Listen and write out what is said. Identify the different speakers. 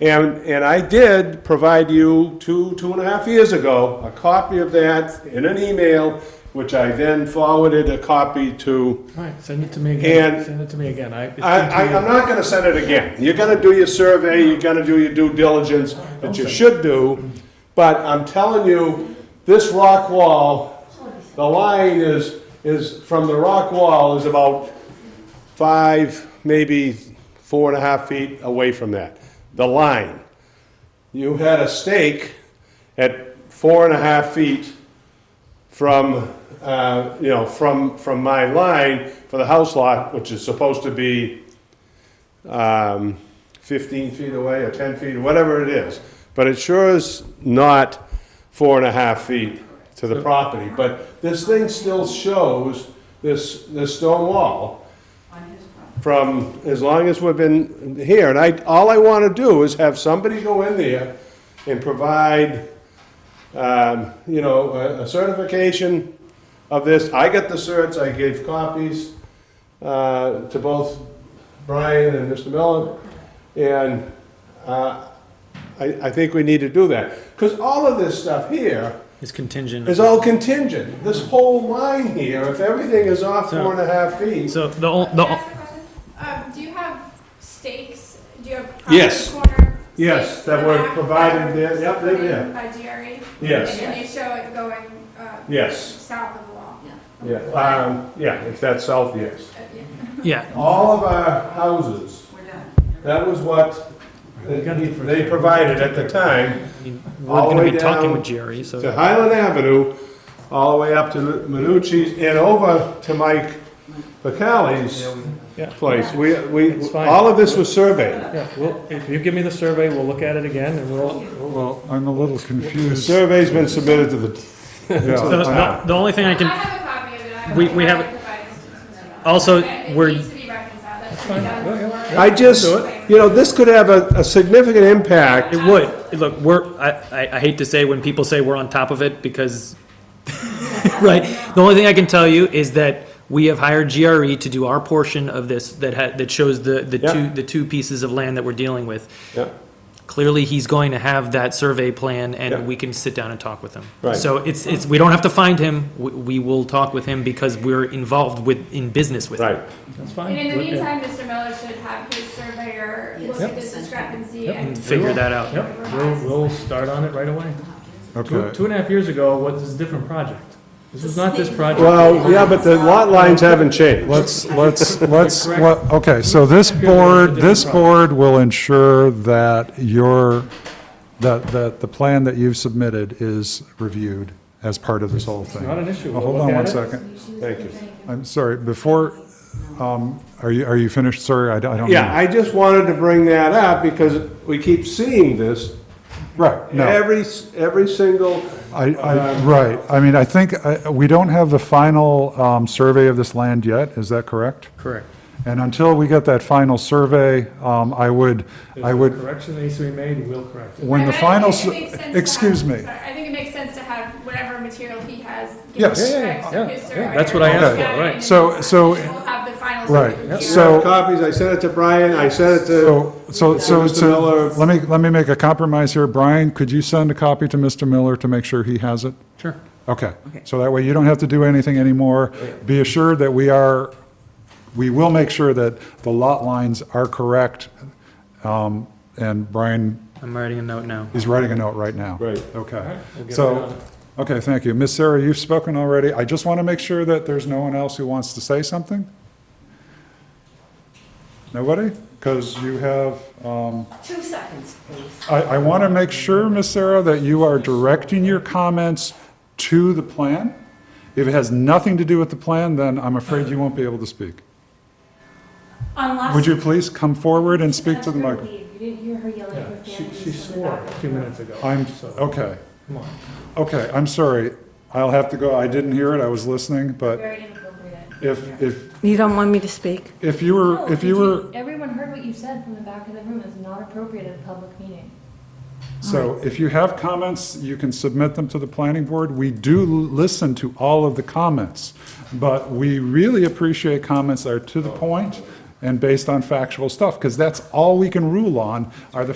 Speaker 1: And, and I did provide you two, two and a half years ago, a copy of that in an email, which I then forwarded a copy to
Speaker 2: All right, send it to me again,
Speaker 1: And-
Speaker 2: send it to me again. I, it's
Speaker 1: I,
Speaker 2: been two
Speaker 1: I,
Speaker 2: years.
Speaker 1: I'm not gonna send it again. You're gonna do your survey, you're gonna do your due diligence that you should do, but I'm telling you, this rock wall, the line is, is, from the rock wall is about five, maybe four and a half feet away from that, the line. You had a stake at four and a half feet from, uh, you know, from, from my line for the house lot, which is supposed to be um, 15 feet away or 10 feet, whatever it is. But it sure is not four and a half feet to the property. But this thing still shows this, this stone wall from as long as we've been here. And I, all I want to do is have somebody go in there and provide, um, you know, a a certification of this. I got the certs, I gave copies uh, to both Brian and Mr. Miller, and uh, I, I think we need to do that. Because all of this stuff here
Speaker 3: It's contingent.
Speaker 1: is all contingent. This whole line here, if everything is off four and a half feet,
Speaker 3: So the, ol-
Speaker 4: Can
Speaker 3: the,
Speaker 4: I
Speaker 3: ol-
Speaker 4: ask a question? Um, do you have stakes, do you have
Speaker 1: Yes.
Speaker 4: property corner?
Speaker 1: Yes,
Speaker 4: stakes
Speaker 1: that
Speaker 4: in the
Speaker 1: were
Speaker 4: back
Speaker 1: provided
Speaker 4: that
Speaker 1: there.
Speaker 4: were
Speaker 1: Yep, they're
Speaker 4: put in
Speaker 1: there.
Speaker 4: By DRE?
Speaker 1: Yes.
Speaker 4: And you show it going, uh,
Speaker 1: yes,
Speaker 4: south of the wall?
Speaker 1: yeah, um, yeah, if that's south, yes.
Speaker 4: Uh, yeah.
Speaker 3: yeah,
Speaker 1: All of our houses, that was what they provided at the time.
Speaker 3: I mean,
Speaker 1: All
Speaker 3: we're
Speaker 1: the
Speaker 3: gonna
Speaker 1: way
Speaker 3: be talking
Speaker 1: down
Speaker 3: with Jerry, so.
Speaker 1: to Highland Avenue, all the way up to Minucci's and over to Mike
Speaker 2: Yeah.
Speaker 1: Bacali's place. We,
Speaker 2: It's
Speaker 1: we,
Speaker 2: fine.
Speaker 1: all of this was surveyed.
Speaker 2: Yeah, well, if you give me the survey, we'll look at it again and we'll,
Speaker 5: Well, I'm a little
Speaker 1: The
Speaker 5: confused.
Speaker 1: survey's been submitted to the,
Speaker 5: Yeah,
Speaker 3: So the,
Speaker 5: I-
Speaker 3: the only thing I
Speaker 4: I
Speaker 3: can,
Speaker 4: have a copy of it. I
Speaker 3: We-
Speaker 4: will-
Speaker 3: we
Speaker 4: I
Speaker 3: have-
Speaker 4: will provide this to Mr. Miller.
Speaker 3: Also,
Speaker 4: It
Speaker 3: we're-
Speaker 4: needs to be reconciled, that should be done before-
Speaker 1: I just, you know, this could have a, a significant impact.
Speaker 3: it would, look, we're, I, I- I hate to say when people say we're on top of it because, right? The only thing I can tell you is that we have hired GRE to do our portion of this that had, that shows the, the
Speaker 1: Yeah.
Speaker 3: two, the two pieces of land that we're dealing with.
Speaker 1: Yeah.
Speaker 3: Clearly, he's going to have that survey plan
Speaker 1: Yeah.
Speaker 3: and we can sit down and talk with him.
Speaker 1: Right.
Speaker 3: So it's, it's, we don't have to find him, we, we will talk with him because we're involved with, in business with him.
Speaker 1: Right,
Speaker 2: that's fine.
Speaker 4: And in the
Speaker 2: We're good.
Speaker 4: meantime, Mr. Miller should have his surveyor look at this discrepancy
Speaker 2: Yep.
Speaker 4: and.
Speaker 3: And figure that out.
Speaker 2: Yep, we'll, we'll start on it right away. Two,
Speaker 5: Okay,
Speaker 2: two and a half years ago, what, this is a different project. This is not this project.
Speaker 1: well, yeah, but the lot lines haven't changed.
Speaker 5: let's, let's, let's, let- okay, so this board, this board will ensure that your, that, that the plan that you've submitted is reviewed as part of this whole thing.
Speaker 2: Not an issue.
Speaker 5: Well,
Speaker 2: We'll
Speaker 5: Hold
Speaker 2: look
Speaker 5: on
Speaker 2: at
Speaker 5: one
Speaker 2: it.
Speaker 5: second.
Speaker 1: Thank you.
Speaker 5: I'm sorry, before, um, are you, are you finished, sir? I don't, I don't know.
Speaker 1: Yeah, I just wanted to bring that up because we keep seeing this
Speaker 5: Right, no.
Speaker 1: every, s- every single
Speaker 5: I, I, right, I mean, I think, uh, we don't have the final um, survey of this land yet, is that correct?
Speaker 2: Correct.
Speaker 5: And until we get that final survey, um, I would, I
Speaker 2: There's a
Speaker 5: would,
Speaker 2: correction that needs to be made, and we'll correct it.
Speaker 5: when the
Speaker 4: I- I
Speaker 5: final,
Speaker 4: think it
Speaker 5: s-
Speaker 4: makes sense to have-
Speaker 5: excuse me,
Speaker 4: sorry, I think it makes sense to have whatever material he has.
Speaker 5: Yes. Yeah,
Speaker 2: yeah, yeah, yeah,
Speaker 4: yeah,
Speaker 2: that's what I
Speaker 5: asked
Speaker 2: for, right.
Speaker 5: So- so-
Speaker 4: We'll have the final.
Speaker 5: Right.
Speaker 4: survey.
Speaker 5: Yep.
Speaker 1: I have
Speaker 5: So-
Speaker 1: copies, I sent it to Brian, I sent it to,
Speaker 5: so, so, so,
Speaker 1: Mr. Miller-
Speaker 5: so, let me, let me make a compromise here, Brian, could you send a copy to Mr. Miller to make sure he has it?
Speaker 3: Sure.
Speaker 5: Okay, so that way you don't have to do anything anymore. Be assured that we are, we will make sure that the lot lines are correct. Um, And Brian
Speaker 3: I'm writing a note now.
Speaker 5: He's writing a note right now.
Speaker 1: Right.
Speaker 5: Okay.
Speaker 2: we'll get right on
Speaker 5: So, okay, thank you. Miss Sarah, you've spoken already. I just want to make sure that there's no one else who wants to say something? Nobody? Because you have, um,
Speaker 6: Two seconds, please.
Speaker 5: I, I want to make sure, Miss Sarah, that you are directing your comments to the plan. If it has nothing to do with the plan, then I'm afraid you won't be able to speak.
Speaker 6: Unless.
Speaker 5: Would you please come forward and speak to the
Speaker 6: Ask her
Speaker 5: microphone?
Speaker 6: leave. You didn't hear her yelling
Speaker 2: Yeah,
Speaker 6: her
Speaker 2: She,
Speaker 6: family
Speaker 2: she
Speaker 6: from the
Speaker 2: swore
Speaker 6: back.
Speaker 2: a few minutes ago.
Speaker 5: I'm,
Speaker 2: so,
Speaker 5: okay.
Speaker 2: Come on.
Speaker 5: Okay, I'm sorry. I'll have to go. I didn't hear it. I was listening, but
Speaker 6: Very inappropriate.
Speaker 5: if, if,
Speaker 7: You don't want me to speak?
Speaker 5: if you were, if you were,
Speaker 6: Everyone heard what you said from the back of the room. It's not appropriate at a public meeting.
Speaker 5: so if you have comments, you can submit them to the planning board. We do listen to all of the comments, but we really appreciate comments that are to the point and based on factual stuff, because that's all we can rule on, are the